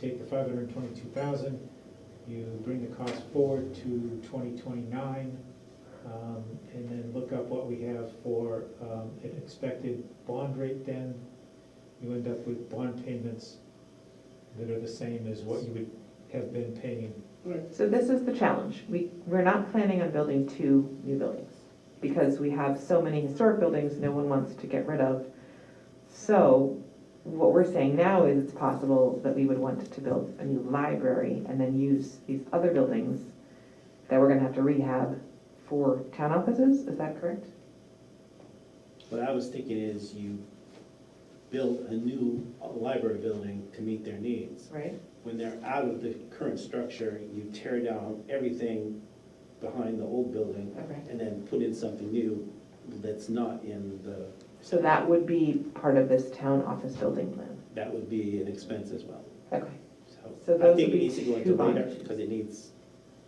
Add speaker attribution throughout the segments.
Speaker 1: Take the five hundred and twenty-two thousand, you bring the cost forward to twenty twenty-nine, um, and then look up what we have for, um, an expected bond rate then. You end up with bond payments that are the same as what you would have been paying.
Speaker 2: So this is the challenge. We, we're not planning on building two new buildings because we have so many historic buildings no one wants to get rid of. So what we're saying now is it's possible that we would want to build a new library and then use these other buildings that we're gonna have to rehab for town offices, is that correct?
Speaker 3: What I was thinking is you build a new library building to meet their needs.
Speaker 2: Right.
Speaker 3: When they're out of the current structure, you tear down everything behind the old building
Speaker 2: Okay.
Speaker 3: and then put in something new that's not in the,
Speaker 2: So that would be part of this town office building plan.
Speaker 3: that would be an expense as well.
Speaker 2: Okay. So
Speaker 3: So
Speaker 2: those
Speaker 3: I think
Speaker 2: would
Speaker 3: it
Speaker 2: be
Speaker 3: needs to go into
Speaker 2: two
Speaker 3: later
Speaker 2: bonds.
Speaker 3: because it needs,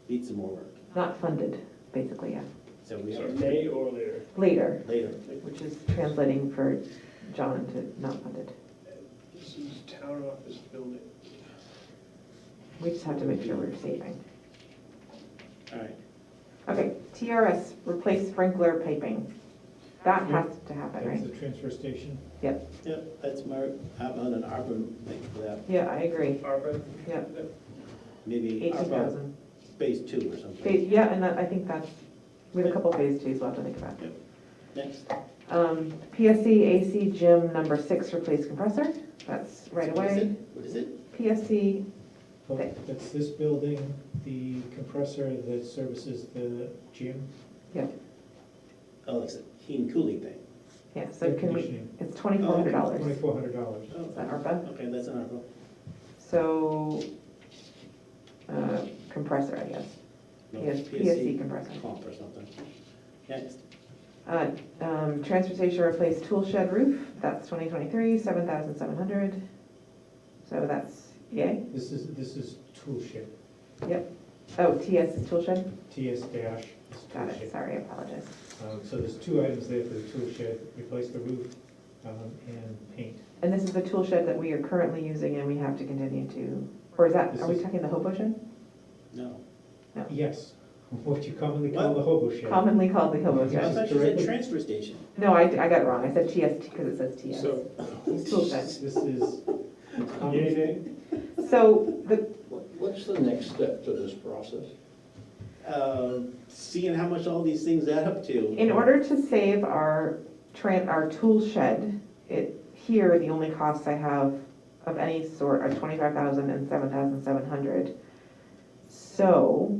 Speaker 3: needs some more work.
Speaker 2: Not funded, basically, yeah.
Speaker 3: So we
Speaker 4: So
Speaker 3: have
Speaker 4: May or later?
Speaker 2: Later,
Speaker 3: later.
Speaker 2: which is translating for John to not funded.
Speaker 4: This is town office building.
Speaker 2: We just have to make sure we're saving.
Speaker 3: All right.
Speaker 2: Okay, TRS, replace sprinkler piping. That has to happen,
Speaker 1: That's
Speaker 2: right?
Speaker 1: the transfer station.
Speaker 3: Yep, that's my, I'm on an ARPA thing for that.
Speaker 2: Yeah, I agree.
Speaker 4: ARPA?
Speaker 2: Yeah.
Speaker 3: Maybe
Speaker 2: Eighteen
Speaker 3: ARPA
Speaker 2: thousand.
Speaker 3: phase two or something.
Speaker 2: Yeah, and that, I think that's, we have a couple phase twos left to think about.
Speaker 3: Next.
Speaker 2: Um, PSC AC gym number six, replace compressor. That's right
Speaker 3: What is
Speaker 2: away.
Speaker 3: it? What is it?
Speaker 2: PSC,
Speaker 1: Well, Oh, That's this building, the compressor that services the gym.
Speaker 3: Oh, it's a Heen Cooley thing.
Speaker 2: yeah, so can we,
Speaker 1: Conditioning.
Speaker 2: it's twenty-four hundred dollars. Is
Speaker 1: Twenty-four hundred dollars.
Speaker 3: Oh,
Speaker 2: that ARPA?
Speaker 3: okay, that's an article.
Speaker 2: So, uh, compressor, I guess.
Speaker 3: No,
Speaker 2: Yes, PSC compressor.
Speaker 3: Comp or something. Next,
Speaker 2: Uh, um, Transfer station replace tool shed roof, that's 2023, 7,700. So that's, yay.
Speaker 1: This is, this is tool ship,
Speaker 2: Oh, TS is tool shed?
Speaker 1: TS dash is tool
Speaker 2: Got it,
Speaker 1: shed.
Speaker 2: sorry, I apologize.
Speaker 1: Um, So there's two items there for the tool shed, replace the roof um, and paint.
Speaker 2: And this is the tool shed that we are currently using and we have to continue to, or is that,
Speaker 1: This
Speaker 2: are we
Speaker 1: is-
Speaker 2: talking the hobo shed?
Speaker 3: no.
Speaker 1: Yes, what you commonly call the hobo shed.
Speaker 2: Commonly called the hobo
Speaker 3: I
Speaker 1: Yes.
Speaker 2: shed.
Speaker 3: thought you said transfer station.
Speaker 2: No, I, I got it wrong, I said TS because it says TS.
Speaker 4: So,
Speaker 2: It's tool shed.
Speaker 1: This is,
Speaker 4: yay,
Speaker 1: common-
Speaker 4: nay?
Speaker 2: So the
Speaker 5: What- What's the next step to this process?
Speaker 3: Uh, Seeing how much all these things add up to.
Speaker 2: In order to save our tran, our tool shed, it, here, the only costs I have of any sort are twenty-five thousand and seven thousand seven hundred. So,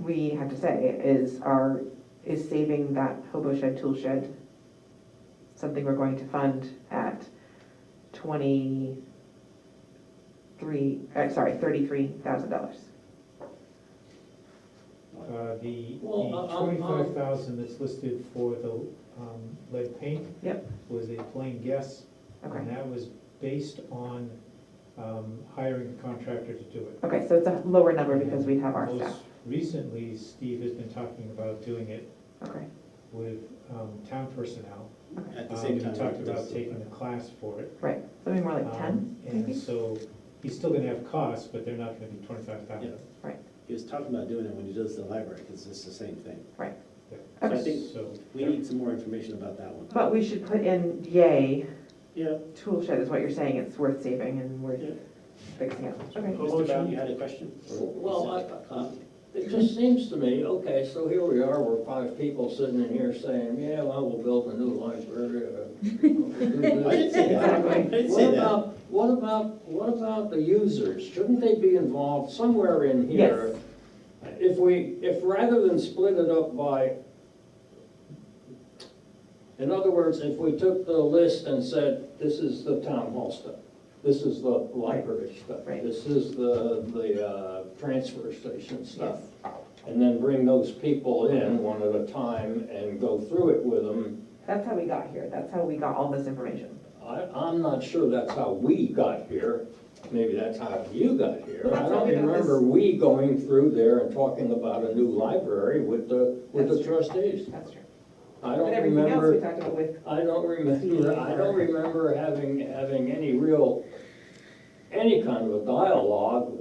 Speaker 2: we have to say, is our, is saving that hobo shed, tool shed, something we're going to fund at twenty-three, uh, sorry, thirty-three thousand dollars?
Speaker 1: uh, um, the
Speaker 5: Well, I- I'm- I'm-
Speaker 1: twenty-five thousand that's listed for the um, lead paint.
Speaker 2: Yep.
Speaker 1: Was a plain guess, and
Speaker 2: Okay,
Speaker 1: that was based on um, hiring a contractor to do it.
Speaker 2: okay, so it's a lower number because we have our
Speaker 1: Most
Speaker 2: staff,
Speaker 1: Recently, Steve has been talking about doing it
Speaker 2: okay,
Speaker 1: with um, town personnel.
Speaker 3: At the
Speaker 1: Um,
Speaker 3: same
Speaker 1: He
Speaker 3: time.
Speaker 1: talked about taking the class for it.
Speaker 2: right, something more like
Speaker 1: Um,
Speaker 2: ten,
Speaker 1: And
Speaker 2: maybe?
Speaker 1: so he's still gonna have costs, but they're not gonna be twenty-five thousand.
Speaker 3: He was talking about doing it when he does the library, because it's the same thing.
Speaker 2: Okay.
Speaker 3: I think-
Speaker 1: So,
Speaker 3: We need some more information about that one.
Speaker 2: But we should put in yay,
Speaker 3: Yeah,
Speaker 2: tool shed is what you're saying, it's worth saving and worth
Speaker 3: Yeah.
Speaker 2: fixing up. Okay.
Speaker 3: Mr. Brown, you had a question? or-
Speaker 5: Well, I-
Speaker 3: Huh?
Speaker 5: It just seems to me, okay, so here we are, we're five people sitting in here saying, yeah, well, we'll build a new library. uh, we'll
Speaker 3: I
Speaker 5: do
Speaker 3: didn't
Speaker 5: this."
Speaker 3: say that. I didn't
Speaker 5: What
Speaker 3: say that.
Speaker 5: about, what about, what about the users? Shouldn't they be involved somewhere in here? If we, if rather than split it up by, in other words, if we took the list and said, this is the town hall stuff, this is the library stuff,
Speaker 2: Right.
Speaker 5: this is the, the, uh, transfer station stuff,
Speaker 2: Yes, Mm-hmm.
Speaker 5: and then bring those people in one at a time and go through it with them,
Speaker 2: that's how we got here, that's how we got all this information.
Speaker 5: I, I'm not sure that's how we got here. Maybe that's how you got here.
Speaker 2: Well, that's
Speaker 5: I
Speaker 2: how
Speaker 5: don't
Speaker 2: we got
Speaker 5: remember
Speaker 2: this.
Speaker 5: we going through there and talking about a new library with the, with the
Speaker 2: That's
Speaker 5: trustees.
Speaker 2: That's true.
Speaker 5: I
Speaker 2: But
Speaker 5: don't
Speaker 2: everything else we
Speaker 5: remember,
Speaker 2: talked about with,
Speaker 5: I don't remember, I don't remember having, having any real any kind of a dialogue